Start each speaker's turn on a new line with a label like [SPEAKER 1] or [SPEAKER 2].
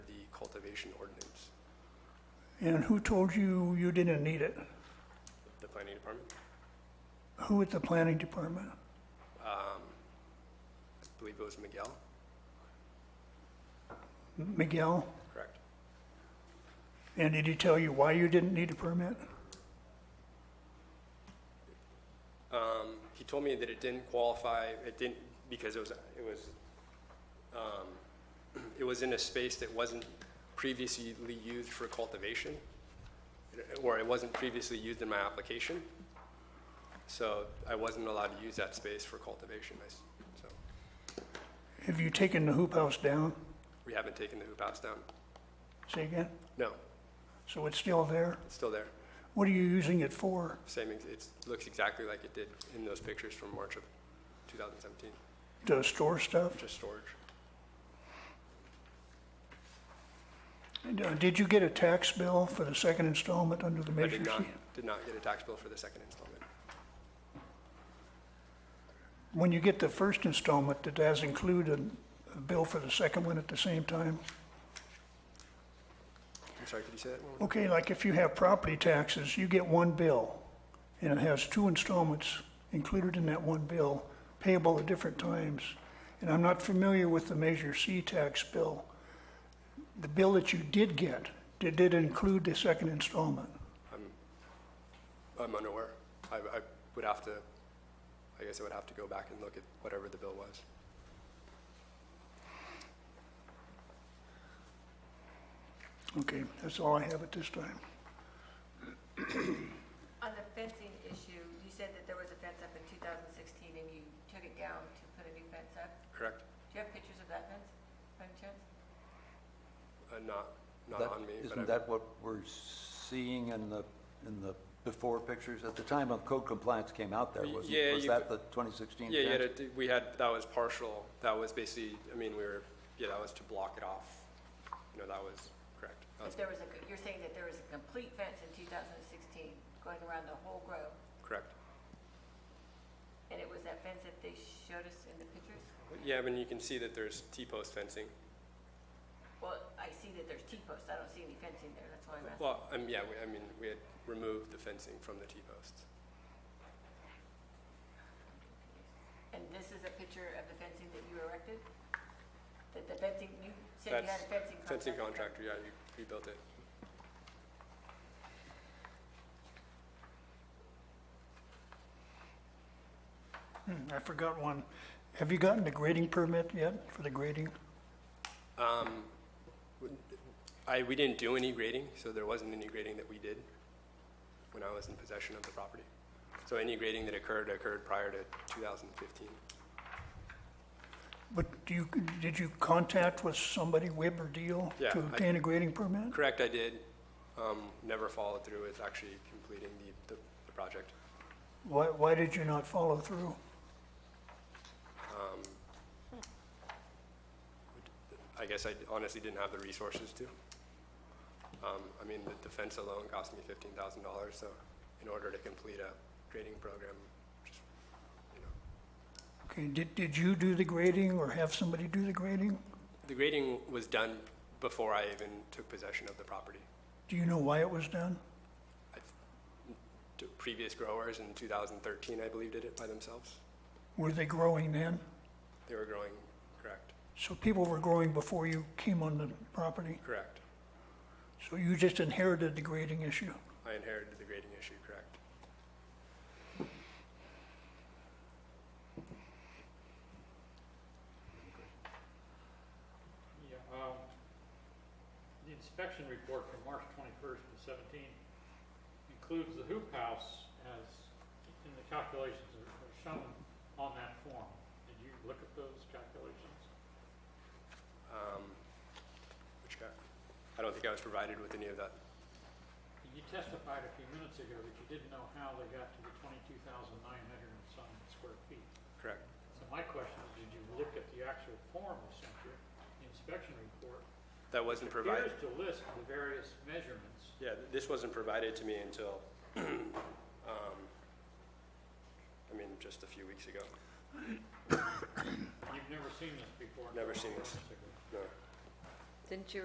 [SPEAKER 1] conservation ordinance,
[SPEAKER 2] And who told you you didn't need it?
[SPEAKER 1] the planning department.
[SPEAKER 2] Who at the planning department?
[SPEAKER 1] I believe it was Miguel,
[SPEAKER 2] Miguel?
[SPEAKER 1] correct?
[SPEAKER 2] And did he tell you why you didn't need a permit?
[SPEAKER 1] He told me that it didn't qualify, it didn't, because it was, it was, um, it was in a space that wasn't previously used for cultivation, or it wasn't previously used in my application. So I wasn't allowed to use that space for cultivation, I s- so
[SPEAKER 2] Have you taken the hoop house down?
[SPEAKER 1] we haven't taken the hoop house down.
[SPEAKER 2] Say again?
[SPEAKER 1] No,
[SPEAKER 2] So it's still there?
[SPEAKER 1] it's still there.
[SPEAKER 2] What are you using it for?
[SPEAKER 1] Same, ex- it looks exactly like it did in those pictures from March of 2017,
[SPEAKER 2] To store stuff?
[SPEAKER 1] just storage.
[SPEAKER 2] And, uh, Did you get a tax bill for the second installment under the
[SPEAKER 1] I
[SPEAKER 2] Measure
[SPEAKER 1] did
[SPEAKER 2] C?
[SPEAKER 1] not, did not get a tax bill for the second installment.
[SPEAKER 2] When you get the first installment, did that include a- a bill for the second one at the same time?
[SPEAKER 1] I'm sorry, could you say that one more time?
[SPEAKER 2] Okay, like if you have property taxes, you get one bill, and it has two installments included in that one bill, payable at different times. And I'm not familiar with the Measure C tax bill. The bill that you did get, did it include the second installment?
[SPEAKER 1] I'm unaware. I, I would have to, I guess I would have to go back and look at whatever the bill was.
[SPEAKER 2] Okay, that's all I have at this time.
[SPEAKER 3] On the fencing issue, you said that there was a fence up in 2016 and you took it down to put a new fence up.
[SPEAKER 1] Correct?
[SPEAKER 3] Do you have pictures of that fence, by any chance?
[SPEAKER 1] Uh, not, not
[SPEAKER 4] That-
[SPEAKER 1] on me, but
[SPEAKER 4] Isn't
[SPEAKER 1] I,
[SPEAKER 4] that what we're seeing in the, in the before pictures? At the time of code compliance came out there,
[SPEAKER 1] Y-
[SPEAKER 4] wasn't,
[SPEAKER 1] yeah,
[SPEAKER 4] was
[SPEAKER 1] you
[SPEAKER 4] that
[SPEAKER 1] could-
[SPEAKER 4] the 2016?
[SPEAKER 1] yeah, yeah,
[SPEAKER 4] fence?
[SPEAKER 1] that- we had, that was partial. That was basically, I mean, we were, yeah, that was to block it off. You know, that was, correct. That was
[SPEAKER 3] If there was a, co- you're saying that there was a complete fence in 2016 going around the whole grow,
[SPEAKER 1] correct.
[SPEAKER 3] and it was that fence that they showed us in the pictures?
[SPEAKER 1] Yeah, I mean, you can see that there's T-post fencing.
[SPEAKER 3] Well, I see that there's T-posts, I don't see any fencing there, that's why I'm asking.
[SPEAKER 1] Well, um, yeah, we, I mean, we had removed the fencing from the T-posts.
[SPEAKER 3] And this is a picture of the fencing that you erected? That the fencing, you said you had
[SPEAKER 1] That's
[SPEAKER 3] a fencing contract?
[SPEAKER 1] Fencing contractor, yeah, you, you built it.
[SPEAKER 2] Hmm, I forgot one. Have you gotten the grading permit yet for the grading?
[SPEAKER 1] I, we didn't do any grading, so there wasn't any grading that we did when I was in possession of the property. So any grading that occurred, occurred prior to 2015.
[SPEAKER 2] But do you, did you contact with somebody, Webb or Deal,
[SPEAKER 1] Yeah,
[SPEAKER 2] to
[SPEAKER 1] I-
[SPEAKER 2] obtain a grading permit?
[SPEAKER 1] Correct, I did, um, never followed through with actually completing the, the, the project.
[SPEAKER 2] Why, why did you not follow through?
[SPEAKER 1] I guess I honestly didn't have the resources to. Um, I mean, the defense alone cost me fifteen thousand dollars, so in order to complete a grading program, just, you know.
[SPEAKER 2] Okay, did, did you do the grading or have somebody do the grading?
[SPEAKER 1] The grading was done before I even took possession of the property.
[SPEAKER 2] Do you know why it was done?
[SPEAKER 1] to previous growers in 2013, I believe, did it by themselves.
[SPEAKER 2] Were they growing then?
[SPEAKER 1] They were growing, correct?
[SPEAKER 2] So people were growing before you came on the property?
[SPEAKER 1] Correct.
[SPEAKER 2] So you just inherited the grading issue?
[SPEAKER 1] I inherited the grading issue, correct?
[SPEAKER 5] Yeah, um, the inspection report from March twenty-first to seventeen includes the hoop house as, in the calculations that are shown on that form. Did you look at those calculations?
[SPEAKER 1] Um, Which guy? I don't think I was provided with any of that.
[SPEAKER 5] You testified a few minutes ago that you didn't know how they got to the twenty-two thousand nine hundred and some square feet.
[SPEAKER 1] Correct.
[SPEAKER 5] So my question is, did you look at the actual form of center, the inspection report?
[SPEAKER 1] That wasn't provided.
[SPEAKER 5] Appears to list the various measurements
[SPEAKER 1] Yeah, th- this wasn't provided to me until, um, I mean, just a few weeks ago.
[SPEAKER 5] You've never seen this before?
[SPEAKER 1] Never seen this. No.
[SPEAKER 3] Didn't you